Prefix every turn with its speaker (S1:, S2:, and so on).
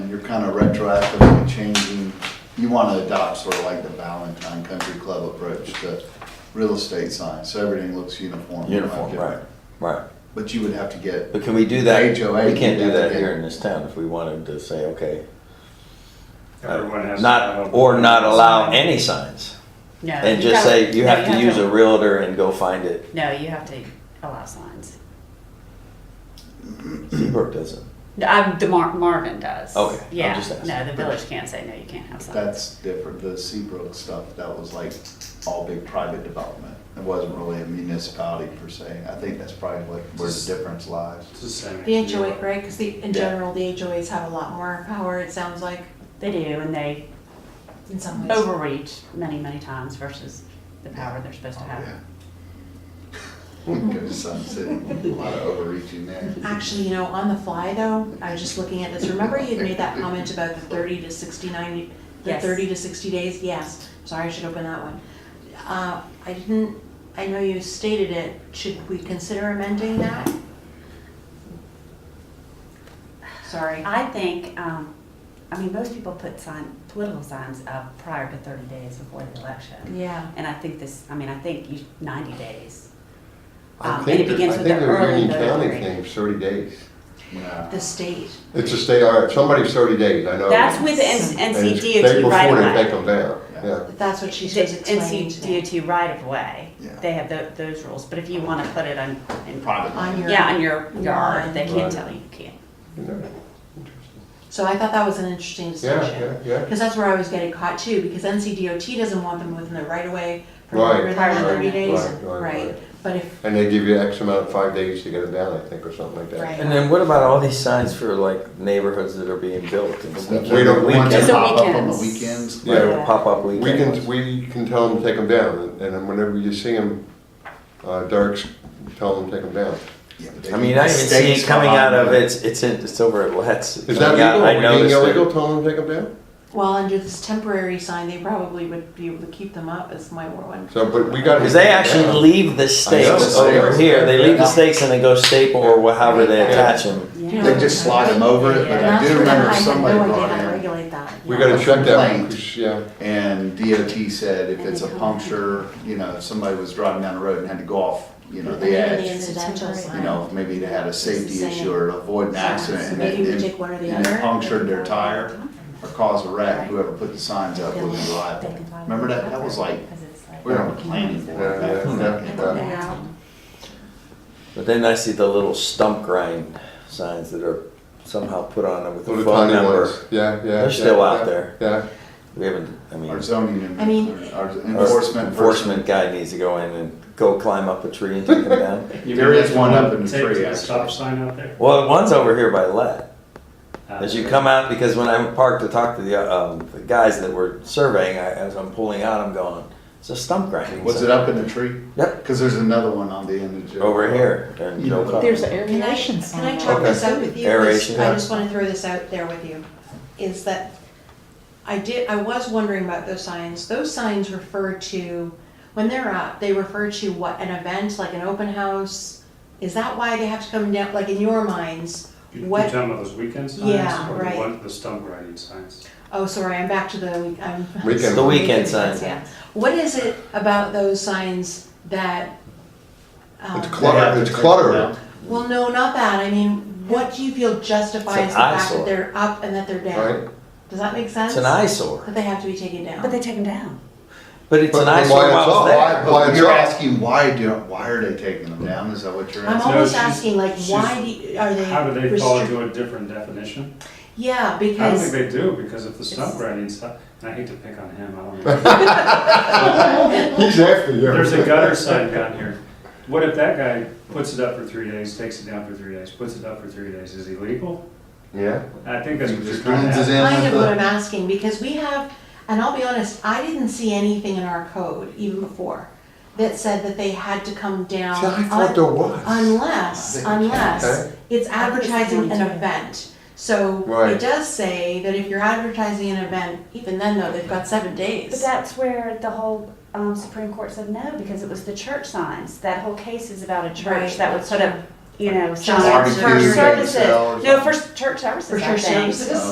S1: kind of retroactively changing, you want to adopt sort of like the Valentine Country Club approach to real estate signs, so everything looks uniform. not
S2: Uniform,
S1: different.
S2: right, right.
S1: But you would have to get,
S2: But can we do that?
S1: HOA
S2: We can't do
S1: would have to
S2: that
S1: get-
S2: here in this town if we wanted to say, okay. uh,
S3: Everyone has. to have
S2: Not,
S3: a-
S2: or not allow any signs.
S4: No.
S2: And
S4: you
S2: just
S4: gotta-
S2: say, you
S4: no,
S2: have to use a realtor and go find it.
S4: No, you have to allow signs.
S2: Seabrook doesn't.
S4: No, I'm, the Mar- Marvin does.
S2: Okay, I'm
S4: Yeah,
S2: just asking.
S4: no, the village can't say, no, you can't have signs.
S1: that's different, the Seabrook stuff, that was like all big private development. It wasn't really a municipality per se, I think that's probably like where the difference lies.
S3: It's the same.
S5: The HOA, right, because the, in
S1: Yeah.
S5: general, the HOAs have a lot more power, it sounds like,
S4: They do, and they
S5: in some ways.
S4: overreach many, many times versus the power they're supposed
S6: Oh,
S4: to have.
S1: Yeah. We can go to Sun City, a lot of overreaching there.
S5: Actually, you know, on the fly though, I was just looking at this, remember you had made that comment about the thirty to sixty-nine, the
S4: Yes.
S5: thirty to sixty days? Yes, sorry, I should open that one. Uh, I didn't, I know you stated it, should we consider amending that? Sorry,
S4: I think, um, I mean, most people put sign, political signs up prior to thirty days before the election.
S5: yeah.
S4: And I think this, I mean, I think you, ninety days. Um,
S6: I
S4: and
S6: think,
S4: it
S6: that-
S4: begins
S6: I
S4: with
S6: think
S4: the
S6: the
S4: early
S6: Union
S4: voting
S6: County
S4: rate.
S6: thing's thirty days.
S1: Yeah.
S5: The state,
S6: It's a state, all right, somebody's thirty days, I know.
S4: That's with the N-
S6: And
S4: NC
S6: it's They
S4: DOT right
S6: before
S4: away.
S6: they take them down,
S1: Yeah.
S6: yeah.
S5: that's what she
S4: The
S5: was explaining to me.
S4: NC DOT right of way,
S1: Yeah.
S4: they have tho- those rules, but if you wanna put it on, in,
S1: Private.
S5: On your-
S4: yeah, on your yard, they
S6: Right.
S4: can't tell you, you can't.
S6: You know,
S5: So I thought that was an interesting
S6: Yeah,
S5: discussion.
S6: yeah, yeah.
S5: Because that's where I was getting caught too, because NCDOT doesn't want them within the right of way for
S6: Right.
S5: longer than
S4: Right,
S5: thirty days.
S6: right, right, right.
S5: But if,
S6: And they give you X amount, five days to get them down, I think, or something like that.
S5: Right.
S2: And then what about all these signs for like neighborhoods that are being built and stuff?
S6: We don't-
S2: Weekend-
S6: we
S1: Ones that
S4: Just the
S1: pop up on the weekends.
S4: weekends.
S2: Right, or pop-up
S6: We
S2: weekends.
S6: can, we can tell them to take them down, and- and then whenever you see them, uh, darks, tell them to take them down.
S1: Yeah, but they
S2: I mean,
S1: can-
S2: I even see
S1: states
S2: it coming out
S1: behind
S2: of,
S1: them.
S2: it's, it's, in- it's over at Let's.
S6: Is that
S2: Yeah,
S6: legal?
S2: I
S6: Are we being
S2: noticed it.
S6: illegal, tell them to take them down?
S5: well, under this temporary sign, they probably would be able to keep them up is my one.
S6: So, but we gotta.
S2: Because they actually leave the stakes
S1: know,
S2: over
S1: stakes.
S2: here. They leave
S1: Yeah.
S2: the stakes and they go staple or wha- however they
S5: Yeah.
S2: attach them.
S4: Yeah.
S1: They just slide them over it, but
S5: And
S1: I
S5: that's
S1: do
S5: where
S1: remember
S5: I had
S1: somebody
S5: no idea
S1: brought
S5: how to
S1: in,
S5: regulate that.
S6: We gotta check that, one,
S1: Complaint.
S6: 'cause, yeah.
S1: and DOT said if it's a puncture, you know, if somebody was driving down the road and had to go off, you know, the
S5: Even the
S1: edge.
S5: incidental
S4: You
S1: You
S5: sign.
S1: know, maybe they had a safety
S5: same.
S1: issue or avoid an
S5: So
S1: accident and
S5: maybe we
S1: it,
S5: take one or the
S1: and it
S5: other.
S1: punctured their tire or caused a wreck, whoever put the signs up would be liable. Remember that, that was like, we were on the planning board.
S6: Yeah,
S1: back
S6: yeah,
S1: then.
S6: yeah.
S2: But then I see the little stump grind signs that are somehow put on with the
S6: Little
S2: phone
S6: tiny
S2: number.
S6: ones. Yeah, yeah.
S2: They're
S6: yeah,
S2: still out
S6: yeah,
S2: there.
S6: Yeah.
S2: We haven't, I mean.
S1: Our zoning and,
S5: I mean-
S1: our
S2: our
S1: enforcement person
S2: Enforcement guy needs to go in and go climb up a tree and take them down.
S3: You
S1: There
S3: mean
S1: is
S3: like
S1: one up
S3: the
S1: in the
S3: tape to
S1: tree,
S3: the Stop
S1: actually.
S3: sign out there?
S2: Well, one's over here by Let.
S3: Uh,
S2: As you come out, because when I'm parked to talk to the, uh, um, the guys that were surveying, I, as I'm pulling out, I'm going, it's a stump grinding.
S1: Was
S2: sign."
S1: it up in the tree?
S2: Yep.
S1: Because there's another one on the end of the.
S2: Over here. And Joe Cox.
S7: There's an
S5: Can I,
S7: aeration
S5: can I
S7: sign.
S5: talk
S2: Okay.
S5: this out with you? 'Cause
S2: Aeration,
S5: I
S2: yeah.
S5: just wanna throw this out there with you, is that I did, I was wondering about those signs, those signs refer to, when they're up, they refer to what, an event, like an open house? Is that why they have to come down, like in your minds,
S3: You-
S5: what-
S3: You talking about those weekend signs?
S5: Yeah,
S3: or the
S5: right.
S3: one- The stump grinding signs?
S5: oh, sorry, I'm back to the, um, week- I'm.
S6: Weekend.
S2: The weekend sign.
S5: Yeah, what is it about those signs that? um,
S6: It's
S1: They have
S6: clutter,
S1: to
S6: it's
S1: take
S6: clutter.
S1: them down.
S5: Well, no, not that, I mean, what do you feel justifies
S2: It's
S5: the
S2: an
S5: fact that
S2: eyesore.
S5: they're up and that they're down?
S6: Right.
S5: Does that make sense?
S2: It's an eyesore.
S5: That they have to be taken down.
S4: But they take them down.
S2: But it's
S6: But
S2: an
S6: then
S2: eyesore
S6: why it's
S2: while
S6: up?
S2: it's there.
S1: Why,
S6: Well,
S1: Oh, but
S6: it's
S1: you're
S6: all-
S1: asking why do, why are they taking them down? Is that what you're
S5: I'm
S1: asking?
S3: all-
S5: almost
S3: she's-
S5: asking, like, why do you, are they?
S3: How do they fall
S5: restrict-
S3: into a different definition?
S5: Yeah,
S3: I don't think
S5: because
S3: they do, because if the stump
S4: It's-
S3: grinding sign, and I hate to pick on him, I don't know.
S6: He's after you.
S3: There's a gutter sign down here. What if that guy puts it up for three days, takes it down for three days, puts it up for three days? Is he legal?
S6: Yeah.
S3: I think that's what you're
S1: Just
S3: trying to
S1: lenses
S3: ask.
S1: in
S5: kind
S1: with
S5: of what
S1: the-
S5: I'm asking, because we have, and I'll be honest, I didn't see anything in our code even before that said that they had to come down.
S6: See, I
S5: un-
S6: thought there was.
S1: I
S5: Unless,
S1: think we can,
S5: unless
S6: okay.
S5: it's
S4: I think it's
S5: advertising
S4: down
S5: an
S4: to-
S5: event. So
S6: Right.
S5: it does say that if you're advertising an event, even then though, they've got seven
S4: But
S5: days.
S4: that's where the whole um, Supreme Court said no, because it was the church signs. That whole case is about a
S5: Right.
S4: church that would sort of, you know,
S5: Barbecue,
S4: signs for
S1: bake
S4: services.
S1: sale or
S4: No, for
S1: something.
S4: s- church services,
S5: For
S4: I
S5: church
S4: think.
S5: services.